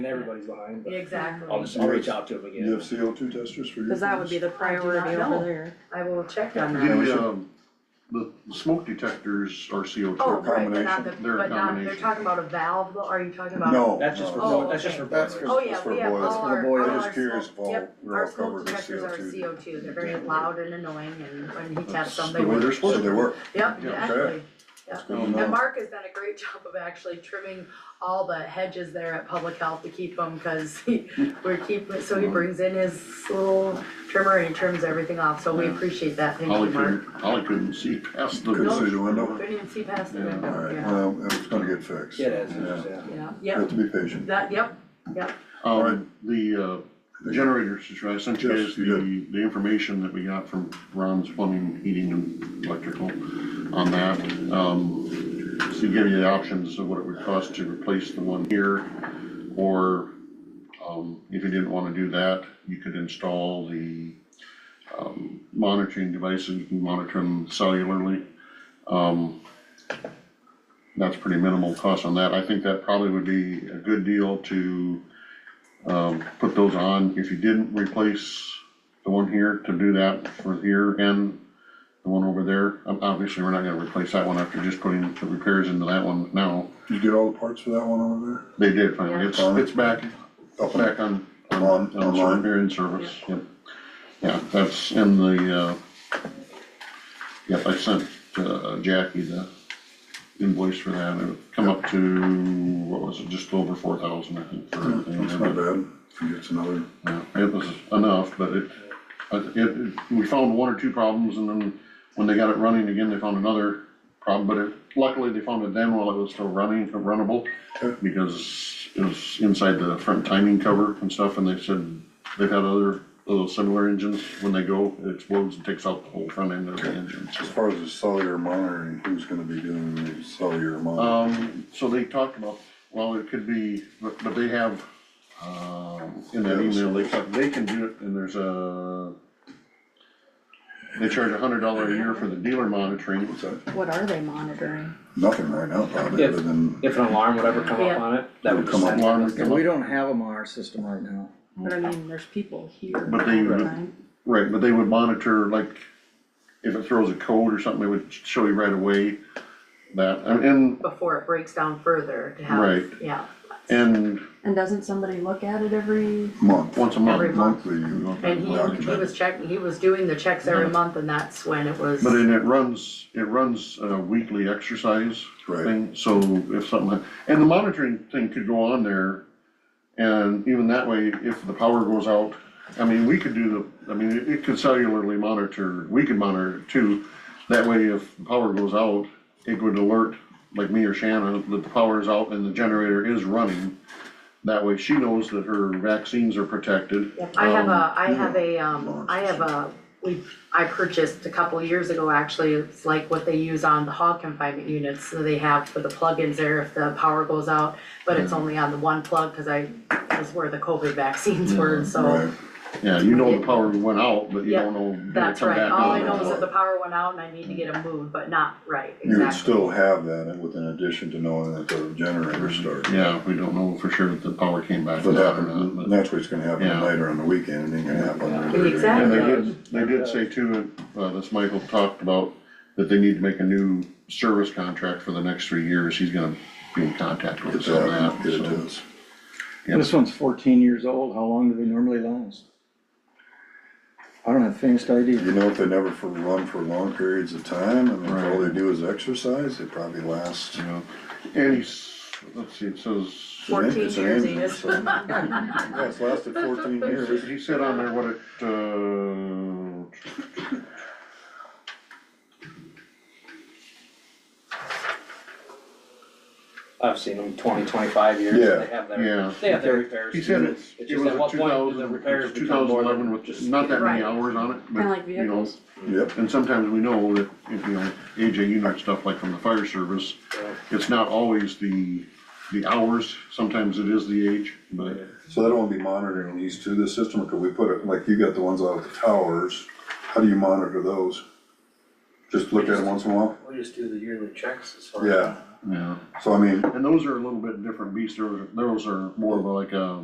and everybody's behind, but Exactly. I'll just, I'll reach out to him Do you have again. CO two testers for your? Cause that would be the I do not priority know. over there. I will check on that. Yeah. The, um, the the smoke detectors are CO Oh, two. right, but not the, Combination. They're a but not, they're combination. talking about a valve, though, are you talking about? No. That's just for, no. bo- that's just for That's boilers. for- Oh, It's yeah, we for have all boilers. For our, all boilers. our. Just curious if smoke- all- yep, we're all covered with Our smoke CO2. detectors are CO two, they're very loud and annoying, and when he taps So something, we're- Where So they work. yep, okay. exactly. Oh, Yep. Good to know. And Mark has done a great job of actually trimming all the hedges there at Public Health to keep them, cause he, we're keeping, so he brings in his little trimmer and he trims everything off, so we appreciate that, thank you, Holly Mark. couldn't, Holly couldn't see past the. Couldn't see the window. Couldn't even see past the Yeah, window, Alright, yeah, well, it's gonna get fixed. Yeah, it is, Yeah. it's just, yeah. yeah, You yep, have to be patient. that, yep, Um, the, uh, generators, is right. I sent you Yes, guys you the, the information that we got from Ron's plumbing, heating and electrical on that. Um, so give you the options of what it would cost to replace the one here, or, um, if you didn't wanna do that, you could install the, um, monitoring devices, you can monitor them cellularly. Um, that's pretty minimal cost on that. I think that probably would be a good deal to, um, put those on. If you didn't replace the one here, to do that for here and the one over there. Um, Obviously, we're not gonna replace that one after just putting the repairs into that one now. Did you get all the parts for that one over They did finally. It's, Yeah. it's back, there? it's back on, on, On- on online. repair and service, yep. Yeah, that's in the, uh, yep, I sent, uh, Jackie the invoice for that. It come up to, what was it, just over four thousand, I think, for everything. That's not bad, if you get another, Yeah, It was enough, but it, I th- it, it- we found one or two problems and then when they got it running again, they found another problem, but it, luckily they found it then while it was still running, uh, runnable. Okay. Because it was inside the front timing cover and stuff and they said they've had other little similar engines, when they go, it explodes and takes out the whole front end of the engine, so. as far as the cellular monitoring, who's gonna be doing the cellular monitoring? Um, so they talked about, well, it could be, but, but they have, um, in that email, they talk, they can do it, and there's a, they charge a hundred dollar a year for the dealer monitoring, What's that? What are they monitoring? Nothing right now, probably, Yeah. other than, If an alarm would ever come Yeah. up on it, that would Come come up. up. alarm would And come we up. don't have them on our system right now. But I mean, there's people here all But they- the time. Right, but they would monitor, like, if it throws a code or something, they would show you right away that, and- and, before it breaks down further to have, Right. yeah, and And doesn't somebody look at it every, month, once a Every month. month. monthly, you- and he, he was checking, he was doing the checks every Mm-hmm. month, and that's when it was, But then it runs, it runs a weekly exercise Right. thing, so if something, and the monitoring thing could go on there. And even that way, if the power goes out, I mean, we could do the, I mean, it- it could cellularly monitor, we could monitor it too. That way, if the power goes out, it would alert, like me or Shannon, that the power is out and the generator is running. That way, she knows that her vaccines are protected. I have Um, a, I have a, um, I have a, we, I purchased a couple of years ago, actually, it's like what they use on the hog confinement units, so they have for the plugins there if the power goes out, but it's only on the one plug, cause I, was where the COVID vaccines were, and so, right, Yeah, you know the power went out, but you Yeah, don't know. when it that's come right, back all on I or know is what. that the power went out and I need to get it moved, but not, right, you would exactly, still have that with an addition to knowing that the generator started. Yeah, we don't know for sure if the power came back If or it not, happens, but. that's what's gonna happen Yeah. later on the weekend, it ain't gonna happen. on the regular. Exactly. And they did, they did say too, uh, this Michael talked about that they need to make a new service contract for the next three years, he's gonna be in contact with It's us on happening, that, it so. is. Yeah. This one's fourteen years old, how long do they normally last? I don't have the faintest You idea. know, if they never for, run for long periods of time, and if all Right. they do is exercise, they probably last. you know. And he's, let's see, it says, Fourteen it's an years, engine, Enos. so- Yeah, it's lasted fourteen years. he said on there what it, uh. I've seen them twenty, twenty-five years, Yeah. they have Yeah. their, they have their repairs. He said it's, It's it just was at a what two point do the thousand, repairs it's two become thousand more eleven than with just- not that many Right. hours on it, kind of like but, you know. vehicles? Yep, And sometimes we know that, if, you know, AJ, you know stuff like from the fire service, Yeah. it's not always the, the hours, sometimes it is the age, but, so that won't be monitoring these two, the system, or could we put it, like you got the ones out of the towers, how do you monitor those? Just look at them once in a while? We just do the yearly checks as far as. Yeah, yeah. So I mean, And those are a little bit different beasts, those, those are more of like a